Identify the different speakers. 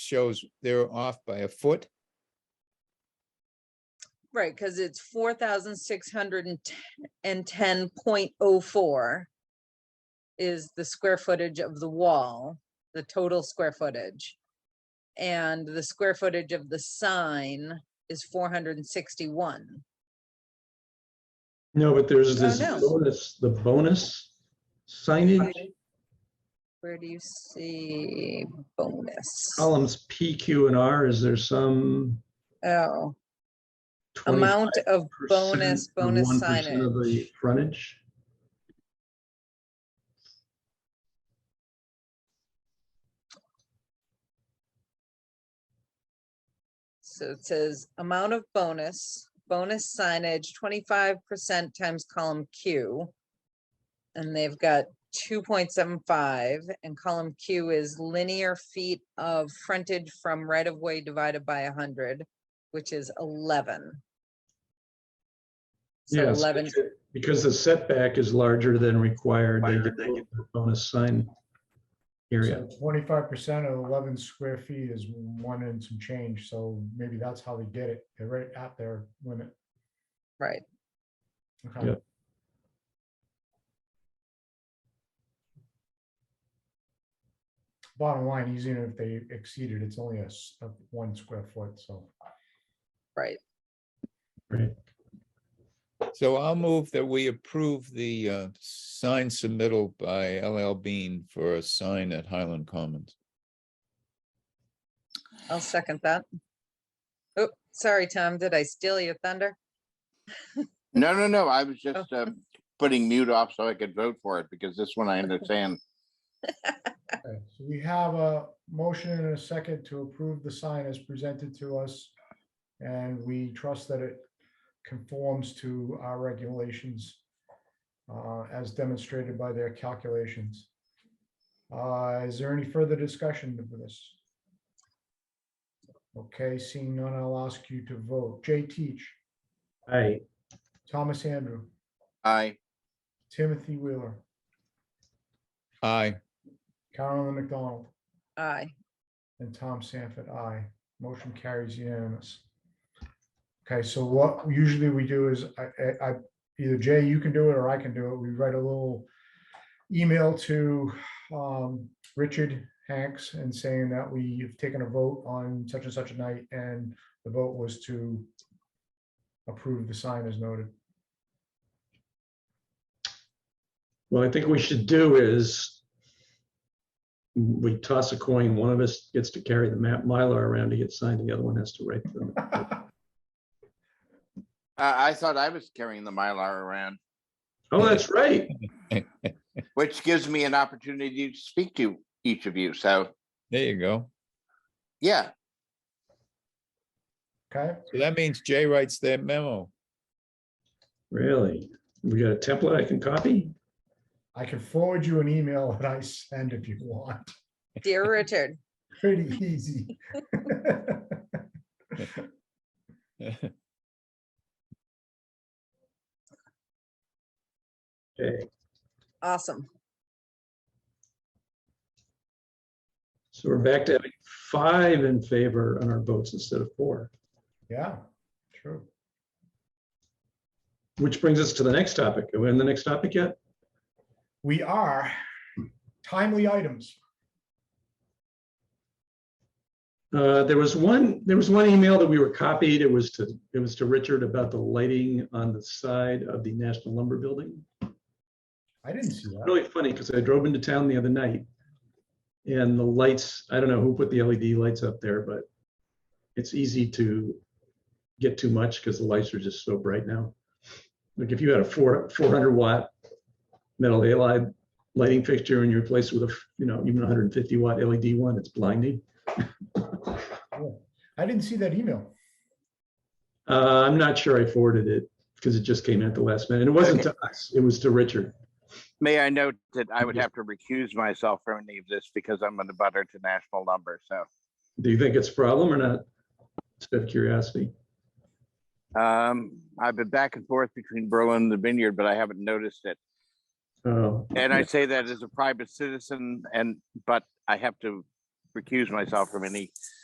Speaker 1: shows they're off by a foot.
Speaker 2: Right, because it's four thousand six hundred and ten point oh four is the square footage of the wall, the total square footage. And the square footage of the sign is four hundred and sixty-one.
Speaker 3: No, but there's
Speaker 2: Oh,
Speaker 3: this
Speaker 2: no.
Speaker 3: bonus, the bonus signage,
Speaker 2: Where do you see bonus?
Speaker 3: columns P, Q, and R, is there some
Speaker 2: Oh,
Speaker 3: twenty-five
Speaker 2: amount of bonus,
Speaker 3: percent or
Speaker 2: bonus
Speaker 3: one percent of
Speaker 2: signage.
Speaker 3: the frontage?
Speaker 2: So it says amount of bonus, bonus signage, twenty-five percent times column Q. And they've got two point seven five and column Q is linear feet of frontage from right of way divided by hundred, which is eleven. So
Speaker 3: Yes,
Speaker 2: eleven,
Speaker 3: because- Because the setback is larger than required, they get the bonus sign area.
Speaker 4: Twenty-five percent of eleven square feet is one and some change, so maybe that's how they did it. They're right at their limit.
Speaker 2: right,
Speaker 4: Okay.
Speaker 3: Yeah.
Speaker 4: Bottom line, even if they exceeded, it's only a, s- a one square foot, so.
Speaker 2: right.
Speaker 3: Right.
Speaker 1: So I'll move that we approve the uh, sign submittal by LL Bean for a sign at Highland Commons.
Speaker 2: I'll second that. Oh, sorry, Tom, did I steal your thunder?
Speaker 5: No, no, no, I was just uh, putting mute off so I could vote for it because this one I understand.
Speaker 4: Okay, So we have a motion and a second to approve the sign as presented to us. And we trust that it conforms to our regulations uh, as demonstrated by their calculations. Uh, Is there any further discussion of this? Okay, seeing none, I'll ask you to vote. Jay Teach,
Speaker 3: Aye.
Speaker 4: Thomas Andrew,
Speaker 5: I,
Speaker 4: Timothy Wheeler,
Speaker 1: Aye,
Speaker 4: Carolyn McDonald,
Speaker 2: Aye.
Speaker 4: And Tom Sanford, aye. Motion carries unanimous. Okay, so what usually we do is I, I, I- either Jay, you can do it or I can do it. We write a little email to um, Richard Hanks and saying that we've taken a vote on such and such a night and the vote was to approve the sign as noted.
Speaker 3: Well, I think we should do is we toss a coin, one of us gets to carry the map Mylar around to get signed, the other one has to write them.
Speaker 5: I I thought I was carrying the Mylar around,
Speaker 3: Oh, that's right.
Speaker 5: which gives me an opportunity to speak to each of you. So,
Speaker 1: there you go.
Speaker 5: yeah,
Speaker 4: Okay,
Speaker 1: So that means Jay writes that memo.
Speaker 3: Really? We got a template I can copy?
Speaker 4: I can forward you an email that I send if you want.
Speaker 2: Dear Richard,
Speaker 4: Pretty easy.
Speaker 3: Okay,
Speaker 2: awesome.
Speaker 3: so we're back to having five in favor on our votes instead of four,
Speaker 4: Yeah, true.
Speaker 3: which brings us to the next topic. Are we on the next topic yet?
Speaker 4: We are timely items.
Speaker 3: Uh, there was one, there was one email that we were copied. It was to, it was to Richard about the lighting on the side of the National Lumber Building.
Speaker 4: I didn't see that.
Speaker 3: really funny because I drove into town the other night and the lights, I don't know who put the LED lights up there, but it's easy to get too much because the lights are just so bright now. Like if you had a four, four hundred watt metal halide lighting fixture and you replace it with a, you know, even hundred and fifty watt LED one, it's blinding.
Speaker 4: I didn't see that email.
Speaker 3: Uh, I'm not sure I forwarded it because it just came in at the last minute. And it wasn't to us, it was to Richard.
Speaker 5: may I note that I would have to recuse myself from any of this because I'm on the butter to national lumber. So,
Speaker 3: Do you think it's a problem or not? Just out of curiosity.
Speaker 5: um, I've been back and forth between Berlin and the vineyard, but I haven't noticed it.
Speaker 3: Oh.
Speaker 5: And I say that as a private citizen and, but I have to recuse myself from any